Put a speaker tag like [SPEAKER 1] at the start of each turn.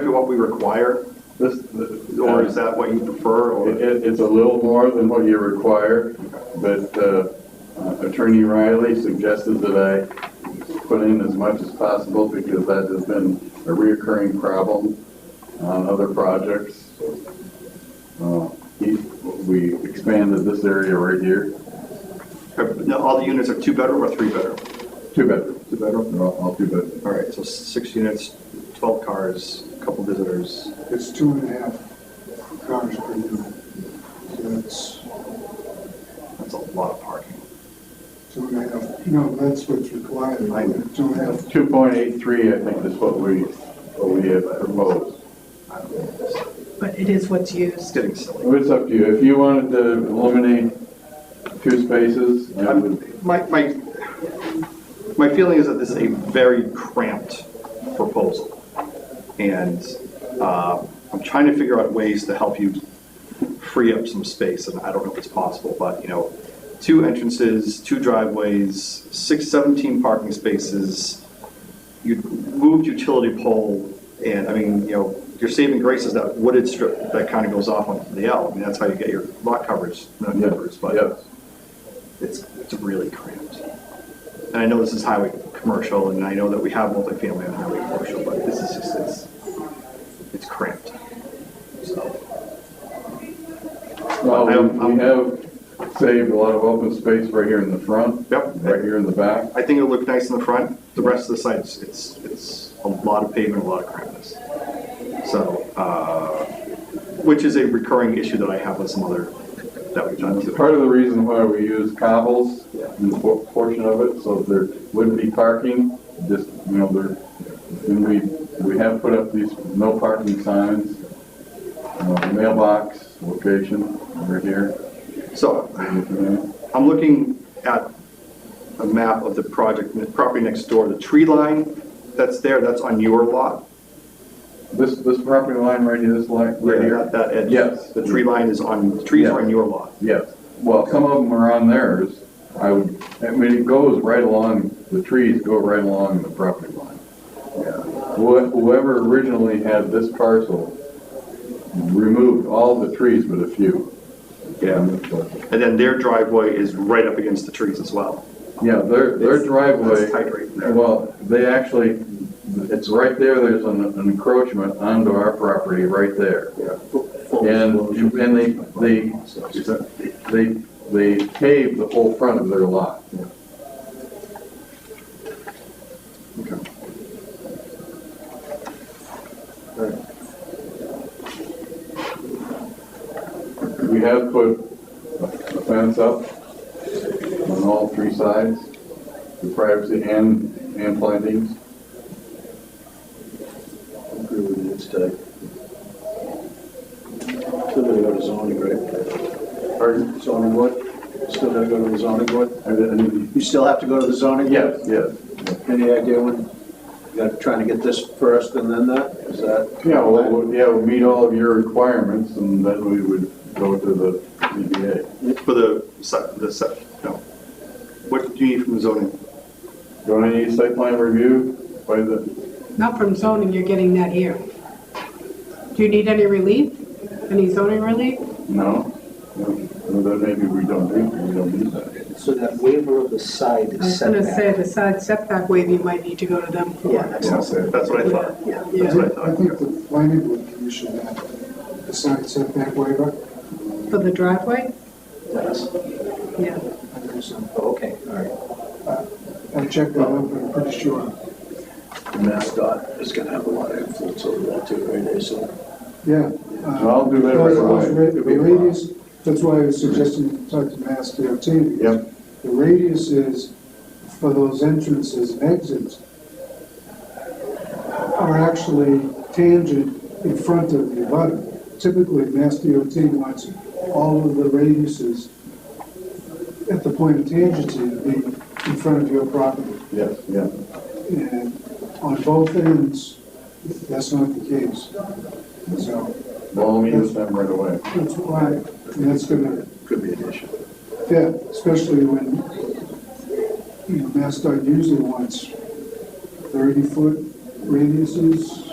[SPEAKER 1] to what we require?
[SPEAKER 2] This,
[SPEAKER 1] Or is that what you prefer,
[SPEAKER 2] It,
[SPEAKER 1] or?
[SPEAKER 2] it- it's a little more than what you require, but uh, Attorney Riley suggested that I put in as much as possible because that has been a reoccurring problem on other projects. Uh, he- We expanded this area right here,
[SPEAKER 1] Now, all the units are two-bedroom or three-bedroom?
[SPEAKER 2] two bedrooms,
[SPEAKER 1] Two-bedroom?
[SPEAKER 2] they're all all two bedrooms.
[SPEAKER 1] All right, so six units, 12 cars, a couple visitors.
[SPEAKER 3] It's two and a half cars per unit. So that's
[SPEAKER 1] That's a lot of parking.
[SPEAKER 3] two and a half, no, that's what's required.
[SPEAKER 1] I know.
[SPEAKER 3] Two and a half,
[SPEAKER 2] 2.83, I think is what we, what we have proposed.
[SPEAKER 1] I don't know, it's-
[SPEAKER 4] But it is what's
[SPEAKER 1] It's
[SPEAKER 4] used.
[SPEAKER 1] getting silly.
[SPEAKER 2] Well, It's up to you, if you wanted to eliminate two spaces, I would
[SPEAKER 1] My, my, my feeling is that this is a very cramped proposal. And uh, I'm trying to figure out ways to help you free up some space, and I don't know if it's possible, but, you know, two entrances, two driveways, six, 17 parking spaces, you moved utility pole, and, I mean, you know, your saving grace is that wooded strip that kind of goes off onto the L. I mean, that's how you get your lot coverage, not numbers, but.
[SPEAKER 2] Yes.
[SPEAKER 1] it's, it's really cramped. And I know this is highway commercial, and I know that we have multifamily on highway commercial, but this is just, it's, it's cramped. So,
[SPEAKER 2] Well,
[SPEAKER 1] I don't-
[SPEAKER 2] we- we have saved a lot of open space right here in the front.
[SPEAKER 1] Yep.
[SPEAKER 2] Right here in the back.
[SPEAKER 1] I think it'll look nice in the front, the rest of the site, it's, it's, it's a lot of pavement, a lot of crampness. So, uh, which is a recurring issue that I have with some other, that we've done too.
[SPEAKER 2] Part of the reason why we use cobbles
[SPEAKER 1] Yeah.
[SPEAKER 2] in the por- portion of it, so there wouldn't be parking, just, you know, there, and we, we have put up these no parking signs, uh, mailbox location over here.
[SPEAKER 1] So, I'm looking at a map of the project, the property next door, the tree line that's there, that's on your lot.
[SPEAKER 2] This, this property line right here, this line, right
[SPEAKER 1] Right here
[SPEAKER 2] here,
[SPEAKER 1] at that edge.
[SPEAKER 2] Yes.
[SPEAKER 1] The tree line is on, the trees are on your lot.
[SPEAKER 2] Yes, well, some of them are on theirs. I would, I mean, it goes right along, the trees go right along the property line. Yeah. Wh- Whoever originally had this parcel removed all the trees but a few.
[SPEAKER 1] Yeah. And then their driveway is right up against the trees as well.
[SPEAKER 2] Yeah, their, their
[SPEAKER 1] It's-
[SPEAKER 2] driveway.
[SPEAKER 1] It's tight right there.
[SPEAKER 2] Well, they actually, it's right there, there's an an encroachment onto our property right there. And, and they, they, they, they paved the whole front of their lot.
[SPEAKER 1] Okay.
[SPEAKER 2] We have put a a fence up on all three sides, for privacy and, and plantings.
[SPEAKER 5] agree with you, it's tight. Still gotta go to zoning, right? Pardon? Zoning what? Still gotta go to the zoning board?
[SPEAKER 2] I didn't-
[SPEAKER 5] You still have to go to the zoning?
[SPEAKER 2] Yes, yes.
[SPEAKER 5] Any idea when, you got, trying to get this first and then that, is that?
[SPEAKER 2] Yeah, well, we'll- yeah, we'll meet all of your requirements and then we would go to the E ZBA.
[SPEAKER 1] For the, se- the, se- no. What do you need from the zoning?
[SPEAKER 2] Do I need site plan review by the,
[SPEAKER 4] Not from zoning, you're getting that here. Do you need any relief? Any zoning relief?
[SPEAKER 2] no? No, Then maybe we don't need, we don't need that.
[SPEAKER 6] So that waiver of the side
[SPEAKER 4] I
[SPEAKER 6] is
[SPEAKER 4] was gonna
[SPEAKER 6] setback.
[SPEAKER 4] say, the side setback waiver, you might need to go to them
[SPEAKER 6] Yeah,
[SPEAKER 4] for.
[SPEAKER 6] that's not
[SPEAKER 1] That's what I thought.
[SPEAKER 6] Yeah.
[SPEAKER 3] I
[SPEAKER 1] That's
[SPEAKER 4] Yeah,
[SPEAKER 1] what I
[SPEAKER 3] think- I
[SPEAKER 1] thought.
[SPEAKER 3] think the planning board commission had the side setback waiver.
[SPEAKER 4] for the driveway?
[SPEAKER 6] Yes.
[SPEAKER 4] Yeah.
[SPEAKER 3] I think so.
[SPEAKER 6] Oh, Okay, all right.
[SPEAKER 3] I checked that out, but I'm pretty sure.
[SPEAKER 5] MassDOT is gonna have a lot of influence over that too, right, They said-
[SPEAKER 3] Yeah.
[SPEAKER 2] So I'll do that right
[SPEAKER 3] Those- those
[SPEAKER 2] away.
[SPEAKER 3] ra- The radius, that's why I was suggesting you talk to Mass DOT. because
[SPEAKER 2] Yep.
[SPEAKER 3] The radius is for those entrances and exits are actually tangent in front of the abutter. Typically, Mass DOT wants all of the radiuses at the point of tangency to be in front of your property.
[SPEAKER 2] Yes, yeah.
[SPEAKER 3] And on both ends, that's not the case. So,
[SPEAKER 2] Well, I'll meet with them right away.
[SPEAKER 3] that's why, and that's gonna,
[SPEAKER 5] could be an issue.
[SPEAKER 3] yeah, especially when, you know, MassDOT usually wants thirty-foot radiuses,